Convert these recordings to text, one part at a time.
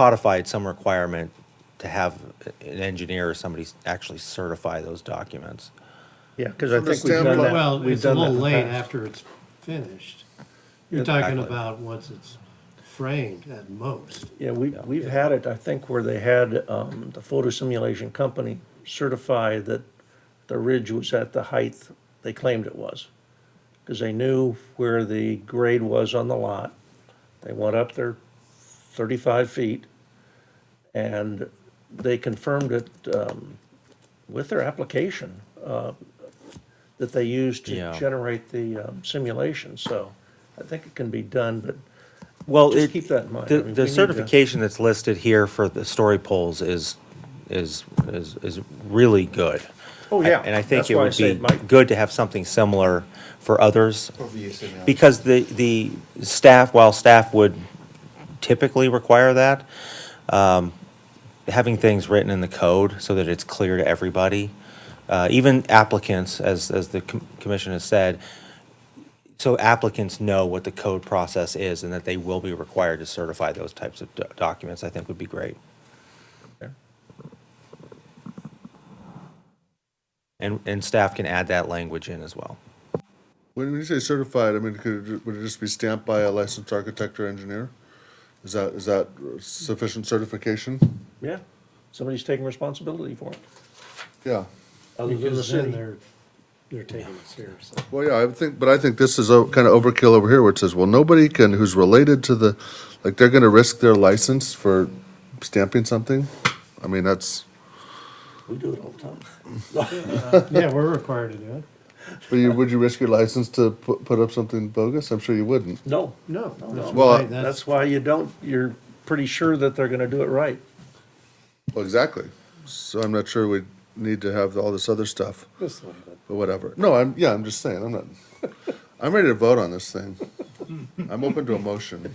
codified some requirement to have an engineer or somebody actually certify those documents. Yeah, because I From the think we've done standpoint- that, Well, we've it's a done that little in the late past. after it's finished. You're talking Exactly. about once it's framed at most. Yeah, we, we've had it, I think, where they had, um, the photo simulation company certify that the ridge was at the height they claimed it was. Because they knew where the grade was on the lot. They went up there thirty-five feet. And they confirmed it, um, with their application, uh, that they used to Yeah. generate the, um, simulation, so I think it can be done, but Well, Just it- keep that in mind. I The, mean, we the need to- certification that's listed here for the story poles is, is, is, is really good. Oh, yeah. And I think That's it why I would say be it might- good to have something similar for others. Over use and knowledge. Because the, the staff, while staff would typically require that, um, having things written in the code so that it's clear to everybody, uh, even applicants, as, as the com- commission has said, so applicants know what the code process is and that they will be required to certify those types of do- documents, I think would be great. And, and staff can add that language in as well. When you say certified, I mean, could, it- would it just be stamped by a licensed architect or engineer? Is that, is that sufficient certification? Yeah, somebody's taking responsibility for it. Yeah. Other than the Because then city. they're, they're taking it seriously. Well, yeah, I would think, but I think this is a kind of overkill over here where it says, well, nobody can, who's related to the, like, they're gonna risk their license for stamping something? I mean, that's, We do it all the time. Yeah, we're required to do it. but you, would you risk your license to put, put up something bogus? I'm sure you wouldn't. No, No. that's Well, why- that's- that's why you don't, you're pretty sure that they're gonna do it right. Well, exactly. So I'm not sure we need to have all this other stuff, Just leave it. but whatever. No, I'm, yeah, I'm just saying, I'm not, I'm ready to vote on this thing. I'm open to a motion.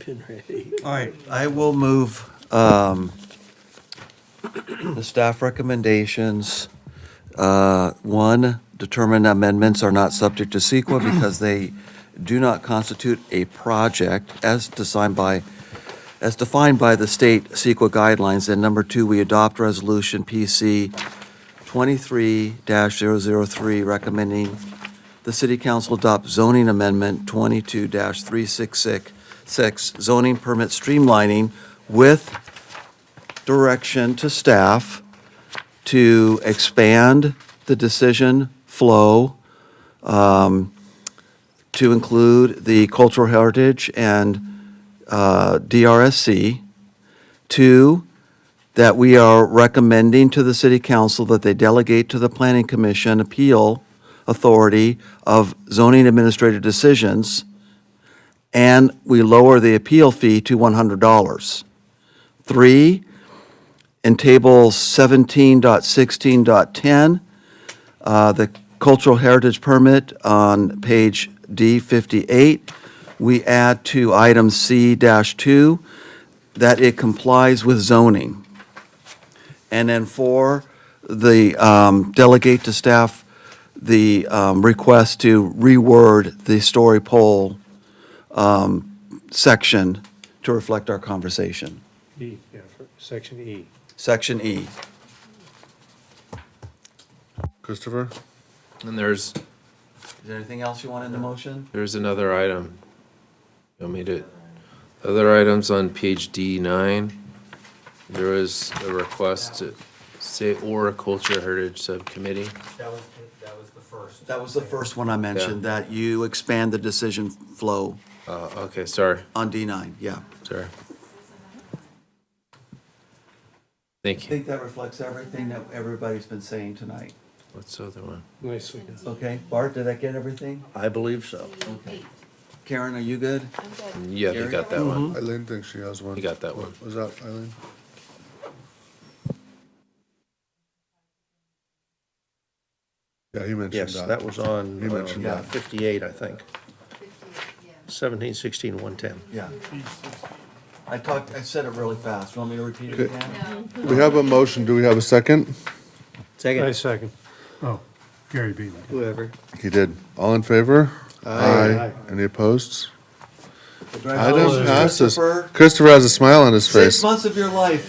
All right, I will move um, the staff recommendations. Uh, One, determine amendments are not subject to CEQA because they do not constitute a project as designed by, as defined by the state CEQA guidelines. And number two, we adopt resolution PC 23-003 recommending the city council adopt zoning amendment 22-366 zoning permit streamlining with direction to staff to expand the decision flow um, to include the cultural heritage and uh, DRSC. Two, that we are recommending to the city council that they delegate to the planning commission appeal authority of zoning administrative decisions, and we lower the appeal fee to $100. Three, in table 17.16.10, uh, the cultural heritage permit on page D58, we add to item C-2 that it complies with zoning. And then four, the um, delegate to staff the um, request to reword the story poll um, section to reflect our conversation. E, yeah, for- section E. Section E. Christopher? And there's, Is there anything else you want in the motion? there's another item. You want me to, other items on page D nine, there was a request to say or a culture heritage subcommittee. That was, that was the first. That was the first one I mentioned, that you expand the decision flow Uh, okay, sorry, on D9, yeah. sorry. Thank I you. think that reflects everything that everybody's been saying tonight. What's the other one? Nicely done. Okay, Bart, did I get everything? I believe so. Karen, are you good? I'm good. Yeah, they got that one. Eileen thinks she has one. You got that one. Was that Eileen? Yeah, he mentioned that. Yes, that was on You mentioned uh, that. fifty-eight, I think. Seventeen, sixteen, one ten. Yeah. I talked, I said it really fast. You Want me to repeat it again? We have a motion, do we have a second? I second. Oh, Gary beat me. He did. All in favor? Aye. Any opposed? The drive-by Item was passes. Christopher. Christopher has a smile on his face. Six months of your life.